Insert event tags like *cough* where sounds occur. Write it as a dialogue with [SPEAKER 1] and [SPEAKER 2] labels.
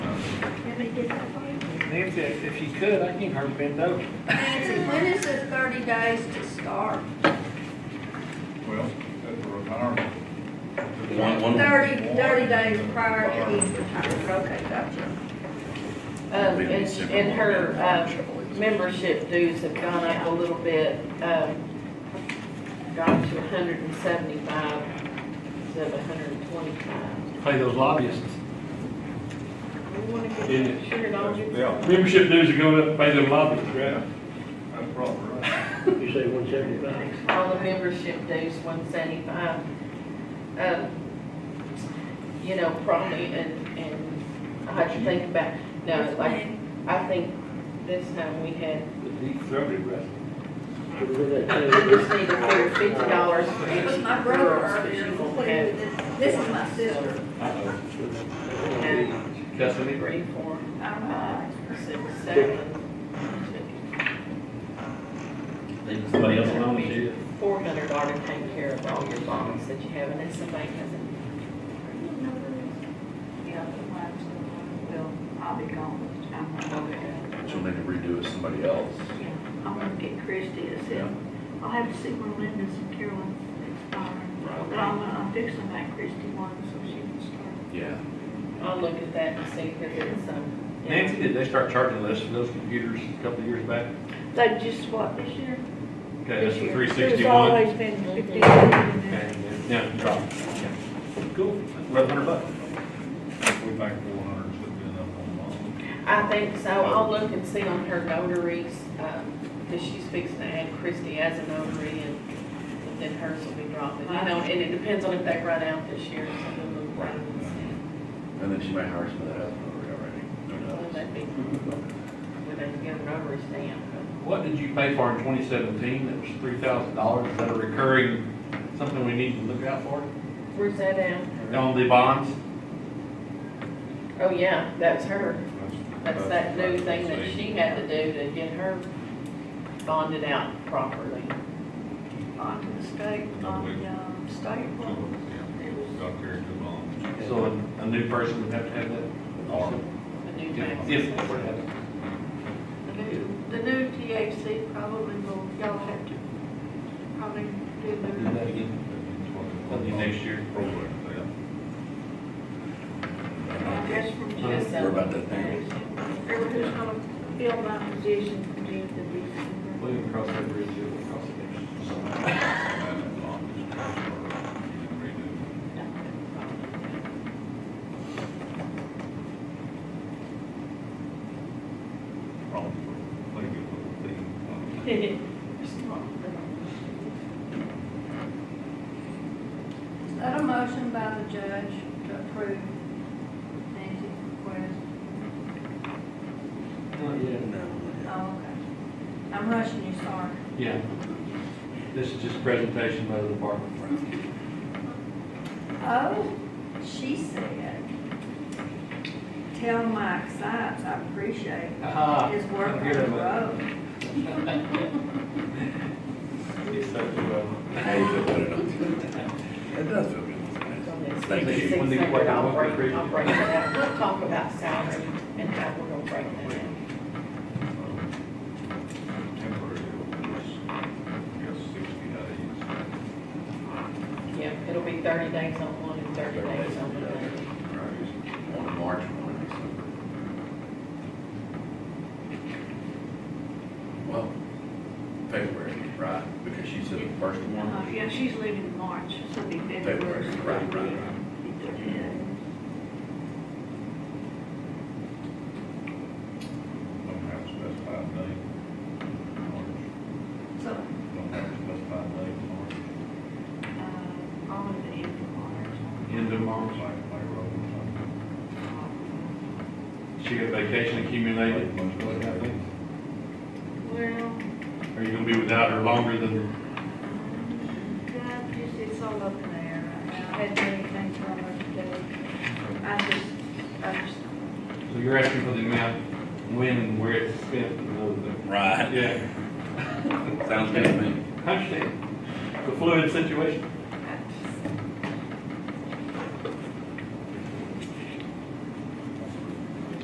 [SPEAKER 1] be different.
[SPEAKER 2] Nancy, if you could, I can hurt bend over.
[SPEAKER 1] Nancy, when is the thirty days to start?
[SPEAKER 3] Well, at the retirement.
[SPEAKER 4] One- one-
[SPEAKER 1] Thirty, thirty days prior to his retirement, okay, gotcha.
[SPEAKER 5] Um, and, sh- and her, um, membership dues have gone up a little bit, um, gone to hundred and seventy-five instead of hundred and twenty-five.
[SPEAKER 2] Pay those lobbyists.
[SPEAKER 5] We wanna
[SPEAKER 6] Yeah.
[SPEAKER 5] get, sure it all gets.
[SPEAKER 3] Yeah,
[SPEAKER 6] Membership dues are going up, pay them lobbyists, right?
[SPEAKER 3] that's probably right.
[SPEAKER 2] You say one seventy-five?
[SPEAKER 5] All the membership dues, one seventy-five. Um, you know, probably, and, and I had to think about, no, like, I think this time we had
[SPEAKER 6] Deep throated, right?
[SPEAKER 5] We just need to clear fifty dollars for each
[SPEAKER 1] My brother
[SPEAKER 5] girl,
[SPEAKER 1] earlier
[SPEAKER 5] she's
[SPEAKER 1] included
[SPEAKER 5] okay.
[SPEAKER 1] this, this is my sister.
[SPEAKER 5] And
[SPEAKER 6] That's what it-
[SPEAKER 5] three, four,
[SPEAKER 1] I'm,
[SPEAKER 5] five, six, seven,
[SPEAKER 4] Leaving somebody else alone, you.
[SPEAKER 5] four hundred dollar take care of all your bonds that you have, and that's the bank doesn't,
[SPEAKER 7] Yeah, well,
[SPEAKER 5] well,
[SPEAKER 7] I'll be gone. I'm-
[SPEAKER 5] okay.
[SPEAKER 4] But you'll need to redo it somebody else.
[SPEAKER 7] I'm gonna get Christie to see. I'll have to see where Linda's and Carolyn's expiring. But I'm, uh, I'm fixing that Christie one so she can start.
[SPEAKER 4] Yeah.
[SPEAKER 5] I'll look at that and see if it's some.
[SPEAKER 6] Nancy, did they start charging less for those computers a couple of years back?
[SPEAKER 7] They just what, this year?
[SPEAKER 6] Okay, that's the three
[SPEAKER 7] It's
[SPEAKER 6] sixty-one.
[SPEAKER 7] always been fifty.
[SPEAKER 6] And now it dropped. Yeah. Cool, eleven hundred bucks.
[SPEAKER 3] We think four hundred should be enough on mine.
[SPEAKER 5] I think so, I'll look and see on her notaries, um, cause she's fixing to add Christie as a notary and then hers will be dropping, you know, and it depends on if they run out this year, so we'll look around and see.
[SPEAKER 4] And then she might hire somebody else over already. Who
[SPEAKER 5] Well,
[SPEAKER 4] knows?
[SPEAKER 5] that'd be, we'd have to get a notary stamp.
[SPEAKER 6] What did you pay for in twenty seventeen that was three thousand dollars? Is that a recurring, something we need to look out for?
[SPEAKER 5] Where's that at?
[SPEAKER 6] On the bonds?
[SPEAKER 5] Oh, yeah, that's her. That's that new
[SPEAKER 3] that's-
[SPEAKER 5] thing that
[SPEAKER 3] that's-
[SPEAKER 5] she had to do to get her bonded out properly.
[SPEAKER 7] On to the state, on the, um, state
[SPEAKER 3] Two
[SPEAKER 7] one.
[SPEAKER 3] of them, yeah. Got there too long.
[SPEAKER 6] So a a new person would have to have that?
[SPEAKER 3] Or-
[SPEAKER 5] A new tax.
[SPEAKER 6] If, if it were to happen.
[SPEAKER 7] The new, the new THC probably will, y'all have to probably do
[SPEAKER 6] Do
[SPEAKER 7] the,
[SPEAKER 6] that again, that'll be next year.
[SPEAKER 3] Program,
[SPEAKER 7] I guess from
[SPEAKER 5] Just
[SPEAKER 7] just,
[SPEAKER 5] so-
[SPEAKER 4] We're about that thing.
[SPEAKER 7] everybody's gonna fill my position from June to December.
[SPEAKER 6] We'll even cross that bridge, we'll cross it next year.
[SPEAKER 3] yeah. And as long as it's covered, you can redo it. Probably, maybe a little thing.
[SPEAKER 5] *laughs*
[SPEAKER 1] is that a motion by the judge to approve Nancy's request?
[SPEAKER 6] Not yet.
[SPEAKER 1] Oh, okay. I'm rushing you, sorry.
[SPEAKER 6] Yeah. This is just presentation by the department.
[SPEAKER 1] Oh, she said, tell Mike Science I appreciate
[SPEAKER 6] Ah,
[SPEAKER 1] his work on
[SPEAKER 6] good
[SPEAKER 1] the
[SPEAKER 6] of it.
[SPEAKER 1] road.
[SPEAKER 6] uh,
[SPEAKER 4] How you feel about it? It does feel good. Thank you.
[SPEAKER 5] Six hundred, I'll break, I'll break it out. We'll talk about salary and how we're gonna break that out.
[SPEAKER 3] Temporary, I guess sixty days.
[SPEAKER 5] Yeah, it'll be thirty days on one and thirty days on the other.
[SPEAKER 4] One in March, one in December. Well, February, right, because she said the first
[SPEAKER 7] Uh,
[SPEAKER 1] Uh-huh.
[SPEAKER 4] one.
[SPEAKER 7] Yeah, she's leaving in March, so it'll be February.
[SPEAKER 4] February, right, right, right.
[SPEAKER 3] Don't have a specified date. March.
[SPEAKER 1] So,
[SPEAKER 3] Don't have a specified date, March.
[SPEAKER 7] Uh, all of the end of March.
[SPEAKER 6] End of
[SPEAKER 3] March,
[SPEAKER 6] March.
[SPEAKER 3] like, like, road.
[SPEAKER 6] She got vacation accumulated. Are
[SPEAKER 7] Well,
[SPEAKER 6] you gonna be without her longer than,
[SPEAKER 7] that just, it's all up in the air right now. I had many things I wanted to do. I just, I just,
[SPEAKER 6] so you're asking for the amount, when and where it's spent and all of that?
[SPEAKER 4] Right.
[SPEAKER 6] Yeah,
[SPEAKER 4] Sounds good to me.
[SPEAKER 6] I understand. The fluid situation.